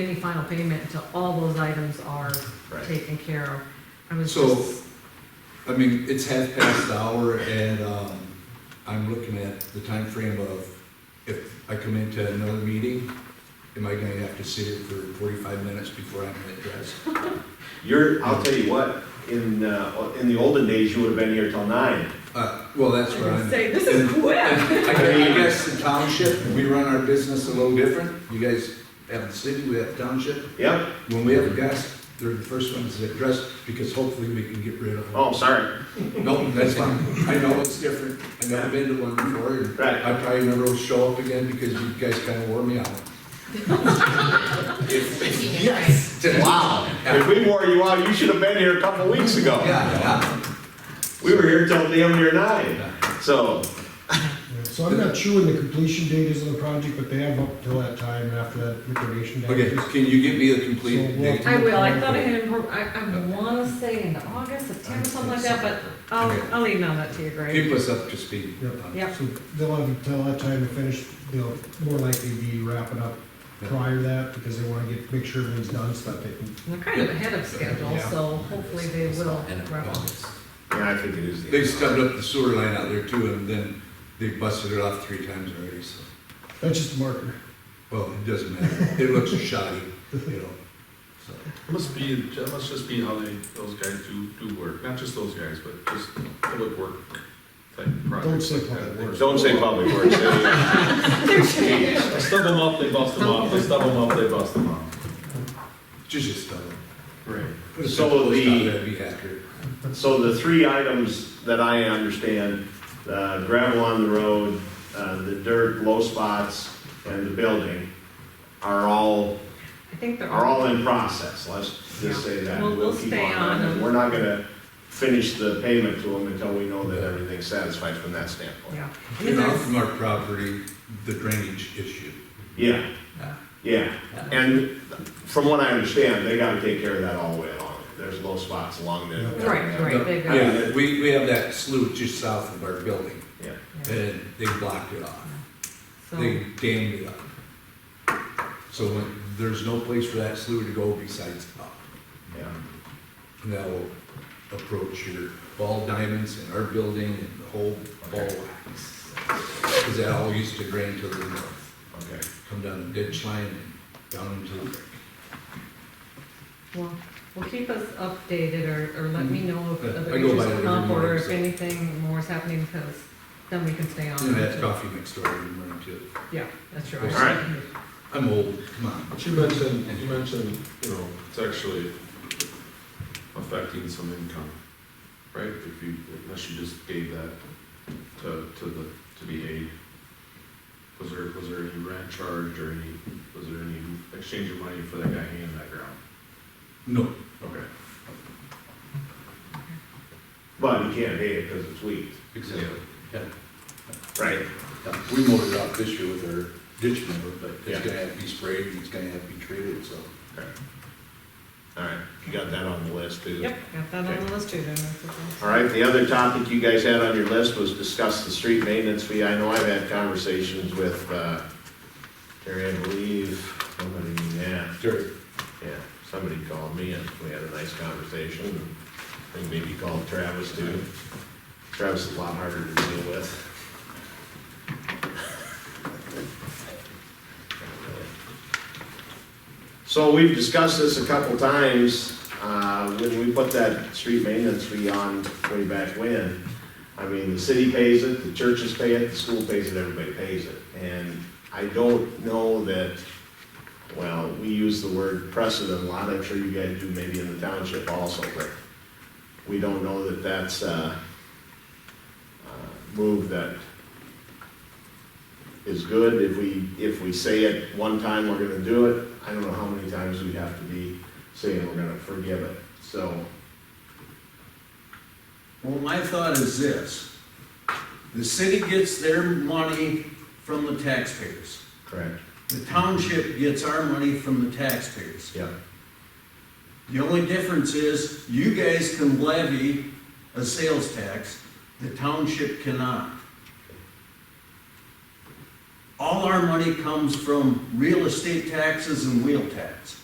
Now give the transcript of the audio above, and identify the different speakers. Speaker 1: any final payment until all those items are
Speaker 2: Right.
Speaker 1: taken care of. I was
Speaker 2: So-
Speaker 1: just,
Speaker 2: I mean, it's half past the hour and, um, I'm looking at the time frame of if I come into another meeting, am I gonna have to sit here for forty-five minutes before I'm addressed?
Speaker 3: You're, I'll tell you what, in, uh, in the olden days, you would have been here till nine.
Speaker 2: Uh, well, that's what
Speaker 1: I
Speaker 2: I'm.
Speaker 1: say, this is quick.
Speaker 2: And I gue- I guess the township, we run our business a little different. You guys have the city, we have township.
Speaker 3: Yep,
Speaker 2: When we have a guest, they're the first ones to address because hopefully we can get rid of them.
Speaker 3: oh, sorry.
Speaker 2: No, that's fine. I know it's different. I've never been to one before. and
Speaker 3: Right.
Speaker 2: I probably never will show up again because you guys kind of wore me out.
Speaker 4: Yes. Wow.
Speaker 3: If we wore you out, you should have been here a couple weeks ago.
Speaker 2: Yeah,
Speaker 3: We were here till damn near nine, so,
Speaker 5: So I'm not sure when the completion date is of the project, but they have up till that time after that liquidation
Speaker 2: yeah.
Speaker 5: date.
Speaker 2: Okay, can you give me a complete
Speaker 5: So,
Speaker 2: date?
Speaker 5: well-
Speaker 1: I will, I thought I had, impro- I, I wanna say in August, September, something like that, but I'll,
Speaker 2: Okay.
Speaker 1: I'll email that to you, Greg.
Speaker 2: Keep us up to speed.
Speaker 5: Yep,
Speaker 1: Yep.
Speaker 5: so they'll have until that time to finish, they'll more likely be wrapping up prior to that, because they wanna get, make sure everything's done, so that they can.
Speaker 1: They're kind of ahead of schedule, so hopefully they will. wrap up.
Speaker 3: yeah, I think it is. the-
Speaker 2: They stubbed up the sewer line out there too and then they busted it off three times already, so.
Speaker 5: That's just a marker.
Speaker 2: Well, it doesn't matter. It looks shoddy, you know, so.
Speaker 6: Must be, that must just be how they, those guys do, do work, not just those guys, but just public work type projects.
Speaker 5: say
Speaker 6: like that.
Speaker 5: public works.
Speaker 3: Don't say public works. say-
Speaker 6: They Stub them up, they bust them off, they stub them up, they bust them off.
Speaker 2: Just just tell them.
Speaker 6: Right.
Speaker 2: Put a
Speaker 3: So
Speaker 2: simple
Speaker 3: the-
Speaker 2: stop there, be accurate.
Speaker 3: So the three items that I understand, uh, gravel on the road, uh, the dirt, low spots, and the building are all
Speaker 1: I think they're
Speaker 3: are
Speaker 1: all,
Speaker 3: all in process, let's just say that.
Speaker 1: Yeah. We'll- we'll
Speaker 3: keep
Speaker 1: stay on
Speaker 3: that.
Speaker 1: them.
Speaker 3: We're not gonna finish the payment to them until we know that everything's satisfied from that standpoint.
Speaker 1: yeah. And
Speaker 2: You
Speaker 1: then
Speaker 2: know,
Speaker 1: there's-
Speaker 2: from our property, the drainage issue.
Speaker 3: Yeah, yeah, and from what I understand, they gotta take care of that all the way along. There's low spots along there.
Speaker 1: Right, right, they've got.
Speaker 2: Yeah, we, we have that slough just south of our building
Speaker 3: Yeah,
Speaker 1: yeah,
Speaker 2: and they blocked it off.
Speaker 1: so-
Speaker 2: They dammed it up. So when, there's no place for that slough to go besides up.
Speaker 3: yeah.
Speaker 2: And that'll approach your ball diamonds and our building and the whole ball wax. Cause that all used to drain to the north,
Speaker 3: Okay,
Speaker 2: come down the ditch line and down into the creek.
Speaker 1: Well, well, keep us updated or, or let me know if
Speaker 2: Mm-hmm. Yeah,
Speaker 1: other
Speaker 2: I go by
Speaker 1: issues
Speaker 2: it every
Speaker 1: come up or
Speaker 2: morning,
Speaker 1: if
Speaker 2: so.
Speaker 1: anything more is happening, because then we can stay on.
Speaker 2: And I had
Speaker 1: it.
Speaker 2: coffee next door every morning too.
Speaker 1: Yeah, that's right.
Speaker 2: All
Speaker 3: right.
Speaker 2: I'm old, come on.
Speaker 6: But you mentioned, you mentioned, you know, it's actually affecting some income, right? If you, unless you just gave that to, to the, to the aid. Was there, was there any rent charge or any, was there any exchange of money for that guy hanging that ground?
Speaker 2: No,
Speaker 6: Okay.
Speaker 3: but you can't pay it because it's weak,
Speaker 2: exactly.
Speaker 3: right?
Speaker 2: Yeah, We mowed it off this year with our ditch mower, but
Speaker 3: Yeah.
Speaker 2: it's gonna have to be sprayed and it's gonna have to be treated, so.
Speaker 3: All right, you got that on the list too?
Speaker 1: Yep, got that on the list too, then. that's okay.
Speaker 3: All right, the other topic you guys had on your list was discuss the street maintenance fee. I know I've had conversations with, uh, Terry, I believe, somebody, yeah,
Speaker 2: Sure.
Speaker 3: yeah, somebody called me and we had a nice conversation. I think maybe you called Travis too. Travis is a lot harder to deal with. So we've discussed this a couple times, uh, when we put that street maintenance fee on way back when. I mean, the city pays it, the churches pay it, the school pays it, everybody pays it. And I don't know that, well, we use the word precedent a lot, I'm sure you guys do maybe in the township also, but we don't know that that's a move that is good. If we, if we say it one time, we're gonna do it, I don't know how many times we have to be saying we're gonna forgive it, so.
Speaker 7: Well, my thought is this, the city gets their money from the taxpayers.
Speaker 3: Correct.
Speaker 7: The township gets our money from the taxpayers.
Speaker 3: Yeah.
Speaker 7: The only difference is you guys can levy a sales tax, the township cannot. All our money comes from real estate taxes and wheel tax.